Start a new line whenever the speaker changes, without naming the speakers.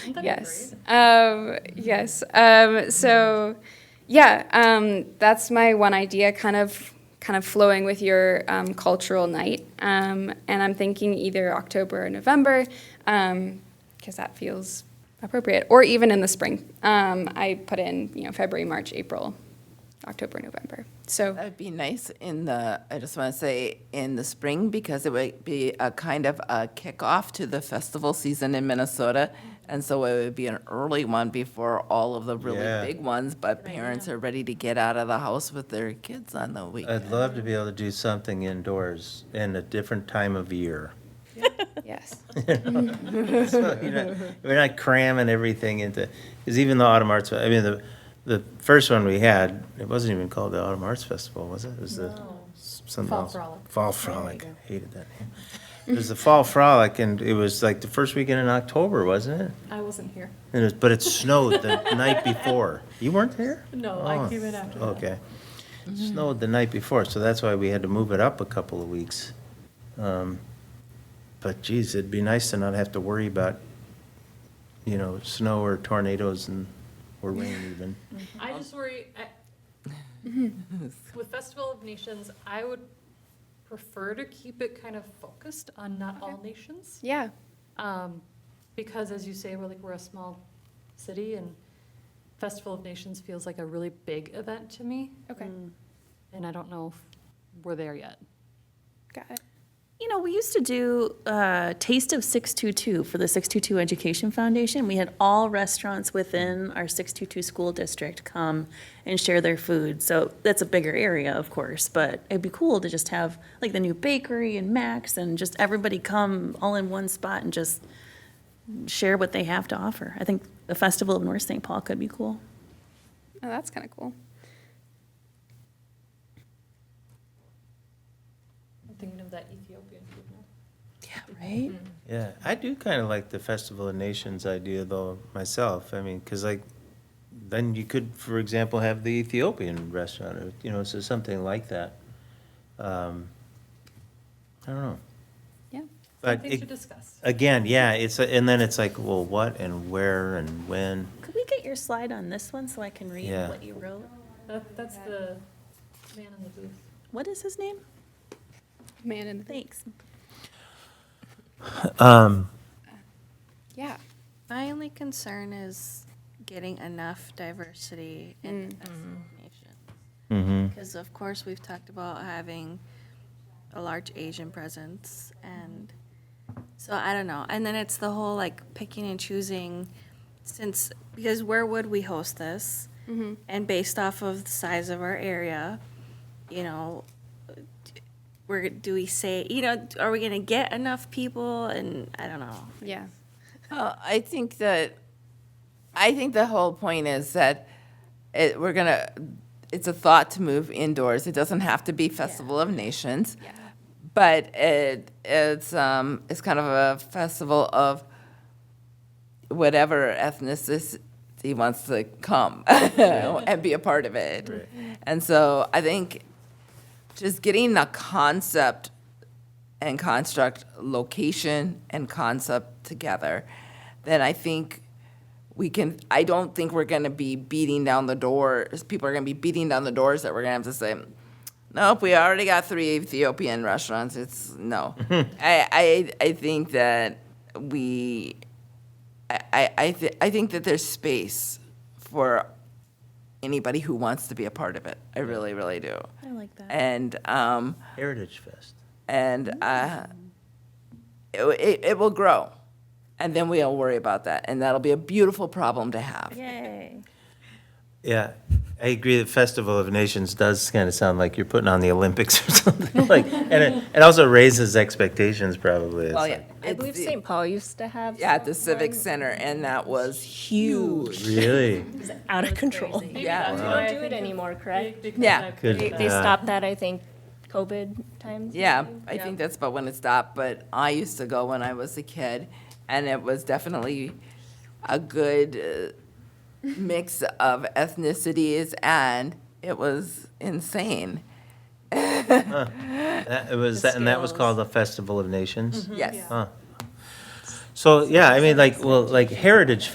Yes. Um, yes. Um, so, yeah, um, that's my one idea, kind of, kind of flowing with your um, cultural night. Um, and I'm thinking either October or November, because that feels appropriate, or even in the spring. Um, I put in, you know, February, March, April, October, November. So
That'd be nice in the, I just want to say, in the spring, because it would be a kind of a kickoff to the festival season in Minnesota. And so it would be an early one before all of the
Yeah.
really big ones, but parents are ready to get out of the house with their kids on the
I'd
weekend.
love to be able to do something indoors in a different time of year.
yes,
So you're not-
Mm-hmm.
We're not cramming everything into, because even the Autumn Arts, I mean, the, the first one we had, it wasn't even called the Autumn Arts Festival, was it? It was the, something
Fall
else.
Frolic.
Fall Frolic, hated that name. It was the Fall Frolic, and it was like the first weekend in October, wasn't it?
I wasn't here.
And it was, but it snowed the night before. You weren't there?
No, I
Oh,
came in after that. Mm-hmm.
Okay. Snowed the night before, so that's why we had to move it up a couple of weeks. Um, But geez, it'd be nice to not have to worry about, you know, snow or tornadoes and, or rain even.
I just worry, I- with Festival of Nations, I would prefer to keep it kind of focused on not all nations.
yeah,
Um, Because as you say, we're like, we're a small city and Festival of Nations feels like a really big event to me.
okay,
And I don't know if we're there yet.
got it.
You know, we used to do uh, Taste of 622 for the 622 Education Foundation. We had all restaurants within our 622 school district come and share their food. So that's a bigger area, of course, but it'd be cool to just have like the new bakery and Max and just everybody come all in one spot and just share what they have to offer. I think the Festival of North St. Paul could be cool.
Oh, that's kind of cool.
I'm thinking of that Ethiopian food now.
Yeah, right?
Yeah, I do kind of like the Festival of Nations idea though myself. I mean, because like, then you could, for example, have the Ethiopian restaurant or you know, so something like that. Um, I don't know,
Yeah.
but
Things to
it,
discuss.
again, yeah, it's a, and then it's like, well, what and where and when?
Could we get your slide on this one so I can read
Yeah.
what you wrote?
That, that's the man in the booth.
What is his name?
Man in the
Thanks.
Um,
Yeah.
My only concern is getting enough diversity in the Festival of Nations.
hmm
Because of course, we've talked about having a large Asian presence and, so I don't know. And then it's the whole like picking and choosing since, because where would we host this?
Mm-hmm.
And based off of the size of our area, you know, where do we say, you know, are we gonna get enough people? And I don't know.
Yeah.
Uh, I think that, I think the whole point is that it, we're gonna, it's a thought to move indoors. It doesn't have to be Festival of Nations.
Yeah.
But it, it's, um, it's kind of a festival of whatever ethnicity wants to come and be a part of it.
Right.
And so I think just getting the concept and construct, location and concept together, then I think we can, I don't think we're gonna be beating down the doors, people are gonna be beating down the doors that we're gonna have to say, nope, we already got three Ethiopian restaurants, it's, no. I, I, I think that we, I, I, I thi- I think that there's space for anybody who wants to be a part of it, I really, really do.
I like that.
And, um,
Heritage Fest.
and uh, it, w- it, it will grow. And then we'll worry about that. And that'll be a beautiful problem to have.
Yay.
Yeah, I agree that Festival of Nations does kind of sound like you're putting on the Olympics or something like, and it, it also raises expectations probably. It's
Well, yeah,
like,
I believe St. Paul used to have. Yeah, at the Civic Center, and that was huge.
Really?
Out of control.
Maybe
Yeah.
that's why I
Wow.
do it anymore, correct?
Yeah.
They,
Good.
they
Uh,
stopped that, I think, COVID times.
Yeah,
maybe?
I think that's about when it stopped, but I used to go when I was a kid, and it was definitely a good uh, mix of ethnicities, and it was insane.
That, it was, that- and that was called the
Mm-hmm.
Festival of Nations?
Yes.
Huh. So, yeah, I mean, like, well, like Heritage